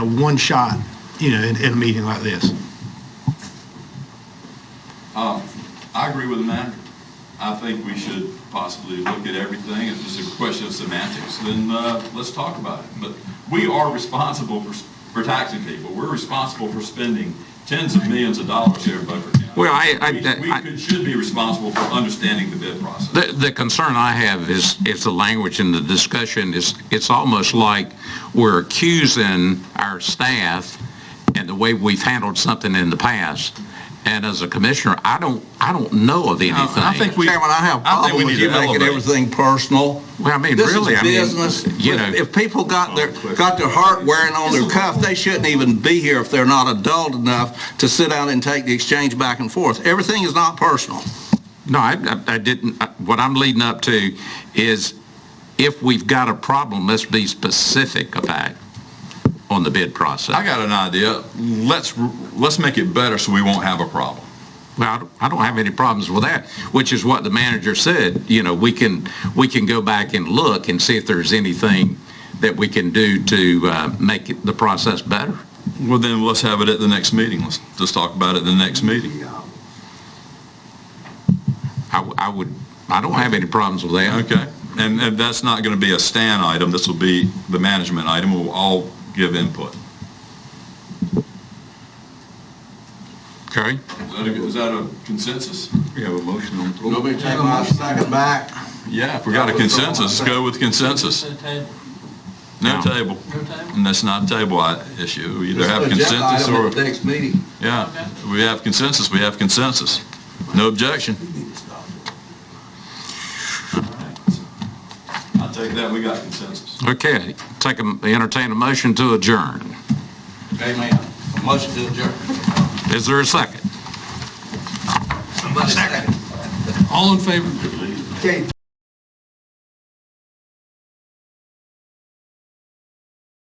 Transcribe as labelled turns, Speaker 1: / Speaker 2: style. Speaker 1: a one shot, you know, in, in a meeting like this.
Speaker 2: I agree with the manager. I think we should possibly look at everything. If it's a question of semantics, then uh, let's talk about it. But we are responsible for, for taxing people. We're responsible for spending tens of millions of dollars here in Beaufort County.
Speaker 3: Well, I- I-
Speaker 2: We- We
Speaker 3: I-
Speaker 2: could- should be responsible for understanding the bid process.
Speaker 3: The, the concern I have is, is the language in the discussion is, it's almost like we're accusing our staff and the way we've handled something in the past. And as a commissioner, I don't, I don't know of anything.
Speaker 4: I think we,
Speaker 5: Chairman, I have a
Speaker 4: I think we
Speaker 5: problem
Speaker 4: need
Speaker 5: with
Speaker 4: to
Speaker 5: you making
Speaker 4: elevate.
Speaker 5: everything personal.
Speaker 3: Well, I mean,
Speaker 5: This is
Speaker 3: really, I mean,
Speaker 5: business.
Speaker 3: you know-
Speaker 5: If- If people got their, got their heart wearing on their cuff, they shouldn't even be here if they're not adult enough to sit down and take the exchange back and forth. Everything is not personal.
Speaker 3: No, I, I- I didn't, I- what I'm leading up to is if we've got a problem, let's be specific about it on the bid
Speaker 4: I
Speaker 3: process.
Speaker 4: got an idea. Let's, let's make it better so we won't have a problem.
Speaker 3: Well, I don't- I don't have any problems with that, which is what the manager said, you know, we can, we can go back and look and see if there's anything that we can do to uh, make it- the process better.
Speaker 4: Well, then let's have it at the next meeting. Let's, let's talk about it at the next meeting.
Speaker 3: I w- I would, I don't have any problems with that.
Speaker 4: Okay? And, and that's not going to be a stand item. This will be the management item. We'll all give input.
Speaker 3: Okay?
Speaker 2: Is that a- is that a consensus?
Speaker 4: We have a motion on the floor.
Speaker 5: Nobody take my second back.
Speaker 4: Yeah, if we got a consensus, let's go with consensus. No
Speaker 3: No.
Speaker 4: table. And that's not a table I- issue. We either have consensus or,
Speaker 5: Next meeting.
Speaker 4: yeah, we have consensus, we have consensus. No objection.
Speaker 2: I take that, we got consensus.
Speaker 3: Okay, take, a- entertain a motion to adjourn.
Speaker 5: Amen. Motion to adjourn.
Speaker 3: Is there a second?
Speaker 5: Somebody second.
Speaker 6: All in favor?
Speaker 5: Okay,